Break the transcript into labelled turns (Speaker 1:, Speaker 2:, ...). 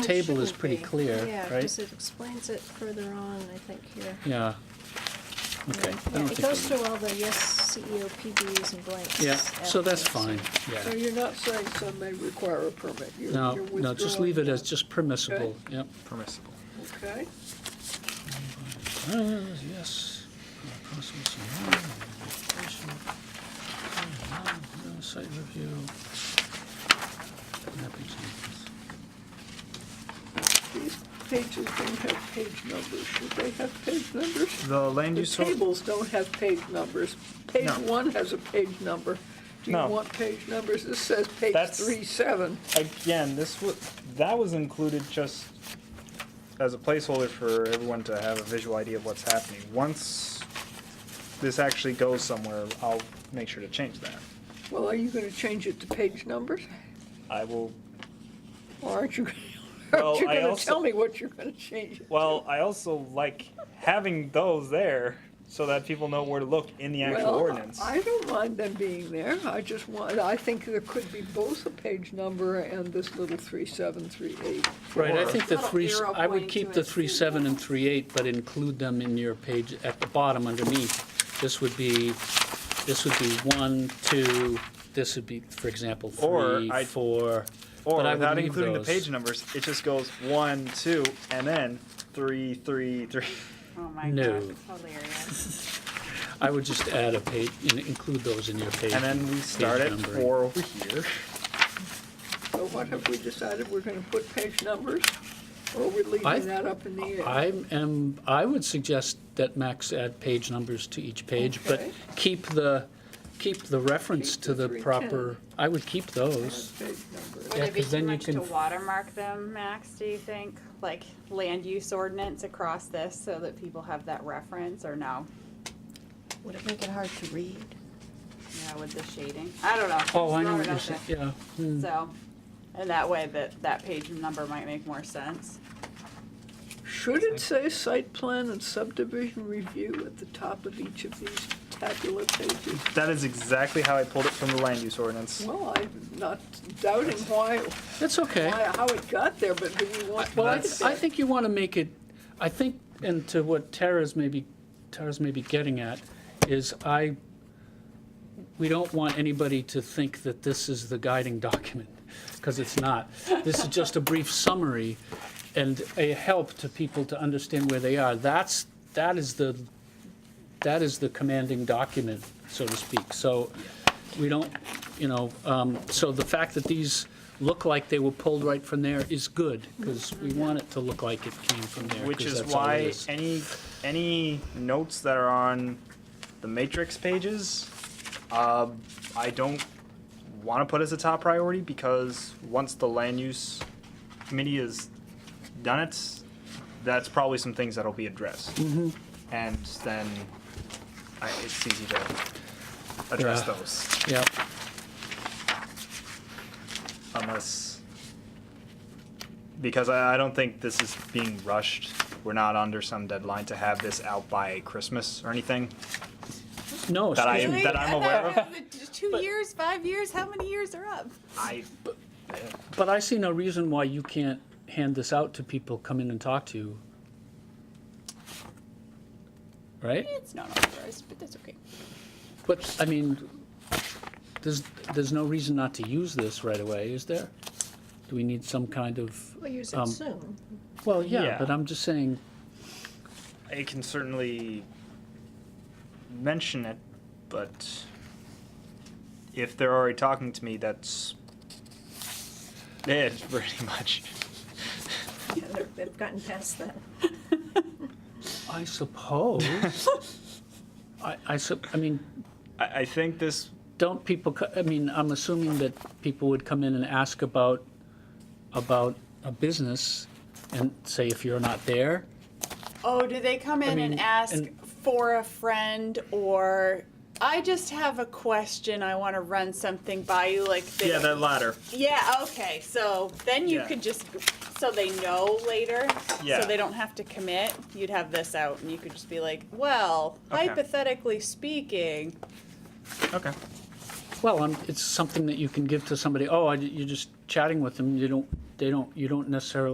Speaker 1: table is
Speaker 2: shouldn't
Speaker 1: pretty
Speaker 2: be.
Speaker 1: clear,
Speaker 2: Yeah,
Speaker 1: right?
Speaker 2: because it explains it further on, I think, here.
Speaker 1: Yeah. Okay. I
Speaker 2: Yeah,
Speaker 1: don't
Speaker 2: it
Speaker 1: think
Speaker 2: goes
Speaker 1: we-
Speaker 2: through all the yes, E CEO, PBs and blanks.
Speaker 1: Yeah, so that's fine,
Speaker 2: afterwards.
Speaker 3: So
Speaker 1: yeah.
Speaker 3: you're not saying some may require a permit? You're-
Speaker 1: No,
Speaker 3: you're
Speaker 1: no, just
Speaker 3: withdrawing
Speaker 1: leave it
Speaker 3: that.
Speaker 1: as just permissible, yep.
Speaker 4: Permissible.
Speaker 3: Okay,
Speaker 1: Uh, Yes. Uh, possible scenario, location, uh, no, no, Site review. Mapping samples.
Speaker 3: these pages don't have page numbers. Should they have page numbers?
Speaker 4: The land
Speaker 3: The
Speaker 4: use. or-
Speaker 3: tables don't have page numbers. Page
Speaker 4: No.
Speaker 3: one has a page number. Do you
Speaker 5: No.
Speaker 3: want page numbers? This says page
Speaker 5: That's-
Speaker 3: three, seven.
Speaker 5: Again, this was, that was included just as a placeholder for everyone to have a visual idea of what's happening. Once this actually goes somewhere, I'll make sure to change that.
Speaker 3: Well, are you gonna change it to page numbers?
Speaker 5: I will,
Speaker 3: Or aren't you,
Speaker 5: Well,
Speaker 3: aren't you
Speaker 5: I
Speaker 3: gonna
Speaker 5: also-
Speaker 3: tell me what you're gonna change it?
Speaker 5: well, I also like having those there so that people know where to look in the actual
Speaker 3: Well,
Speaker 5: ordinance.
Speaker 3: I don't mind them being there. I just want, I think there could be both a page number and this little three, seven, three, eight.
Speaker 1: Right, I
Speaker 4: Or-
Speaker 1: think the
Speaker 2: Little
Speaker 1: three,
Speaker 2: arrow
Speaker 1: I would
Speaker 2: pointing
Speaker 1: keep
Speaker 2: to
Speaker 1: the
Speaker 2: it.
Speaker 1: three seven and three eight, but include them in your page at the bottom underneath. This would be, this would be one, two, this would be, for example,
Speaker 5: Or
Speaker 1: three,
Speaker 5: I-
Speaker 1: four.
Speaker 5: Or
Speaker 1: but I would
Speaker 5: without
Speaker 1: leave
Speaker 5: including
Speaker 1: those.
Speaker 5: the page numbers, it just goes one, two, and then three, three, three.
Speaker 2: Oh, my
Speaker 1: No.
Speaker 2: God, hilarious.
Speaker 1: I would just add a page, and include those in your page.
Speaker 5: And then we
Speaker 1: page
Speaker 5: start at
Speaker 1: numbering.
Speaker 5: four over here.
Speaker 3: So what have we decided? We're gonna put page numbers? Or we're
Speaker 1: I-
Speaker 3: leaving that up in the air?
Speaker 1: I am, I would suggest that Max add page numbers to each page, but
Speaker 3: Okay.
Speaker 1: keep the, keep the reference
Speaker 3: Keep
Speaker 1: to
Speaker 3: the
Speaker 1: the
Speaker 3: three
Speaker 1: proper, I would keep those.
Speaker 3: That's page number.
Speaker 1: Yeah,
Speaker 6: Would it be
Speaker 1: 'cause then
Speaker 6: too
Speaker 1: you
Speaker 6: much to
Speaker 1: can f-
Speaker 6: watermark them, Max, do you think? Like land use ordinance across this so that people have that reference or no?
Speaker 7: Would it make it hard to read?
Speaker 6: Yeah, with the shading? I don't know.
Speaker 1: Oh, I know
Speaker 6: Throw
Speaker 1: what
Speaker 6: it
Speaker 1: you're
Speaker 6: out
Speaker 1: saying,
Speaker 6: there.
Speaker 1: yeah. hmm.
Speaker 6: So, and that way that, that page number might make more sense.
Speaker 3: Should it say site plan and subdivision review at the top of each of these tabular pages?
Speaker 5: That is exactly how I pulled it from the land use ordinance.
Speaker 3: Well, I'm not doubting why,
Speaker 1: That's okay.
Speaker 3: why, how it got there, but do we want?
Speaker 1: Well, I,
Speaker 3: to
Speaker 1: I think you want to make it, I think, and to what Tara's maybe, Tara's maybe getting at, is I, we don't want anybody to think that this is the guiding document, because it's not. This is just a brief summary and a help to people to understand where they are. That's, that is the, that is the commanding document, so to speak. So we don't, you know, um, so the fact that these look like they were pulled right from there is good, because we want it to look like it came from there.
Speaker 5: Which
Speaker 1: 'cause
Speaker 5: is
Speaker 1: that's all it
Speaker 5: why
Speaker 1: is.
Speaker 5: any any notes that are on the matrix pages, uh, I don't want to put as a top priority because once the land use committee has done it, that's probably some things that'll be addressed, and then I, it's easy to address
Speaker 1: Yeah.
Speaker 5: those
Speaker 1: Yeah,
Speaker 5: unless because I, I don't think this is being rushed. We're not under some deadline to have this out by Christmas or anything
Speaker 1: no,
Speaker 5: that I
Speaker 1: excuse me,
Speaker 5: that I'm aware of.
Speaker 6: Two years, five years, how many years are up?
Speaker 5: I
Speaker 1: but I see no reason why you can't hand this out to people, come in and talk to you. Right?
Speaker 6: It's not authorized, but that's okay.
Speaker 1: But, I mean, there's, there's no reason not to use this right away, is there? Do we need some kind of,
Speaker 2: We'll use
Speaker 1: Um,
Speaker 2: it soon.
Speaker 1: well, yeah,
Speaker 5: Yeah.
Speaker 1: but I'm just saying,
Speaker 5: I can certainly mention it, but if they're already talking to me, that's it pretty much.
Speaker 2: Yeah, they're- They've gotten past that.
Speaker 1: I suppose. I, I sup, I mean,
Speaker 5: I, I think this
Speaker 1: don't people, co- I mean, I'm assuming that people would come in and ask about, about a business and say if you're not there.
Speaker 6: Oh, do they come in
Speaker 1: mean,
Speaker 6: and ask
Speaker 1: and-
Speaker 6: for a friend or I just have a question. I want to run something by you, like they-
Speaker 5: yeah, that latter.
Speaker 6: Yeah, Okay. So then you
Speaker 5: Yeah.
Speaker 6: could just so they know later.
Speaker 5: Yeah.
Speaker 6: So they don't have to commit. You'd have this out, and you could just be like, "Well,
Speaker 5: Okay.
Speaker 6: hypothetically speaking,
Speaker 5: Okay.
Speaker 1: Well, um, it's something that you can give to somebody, oh, I- you're just chatting with them, you don't, they don't, you don't necessarily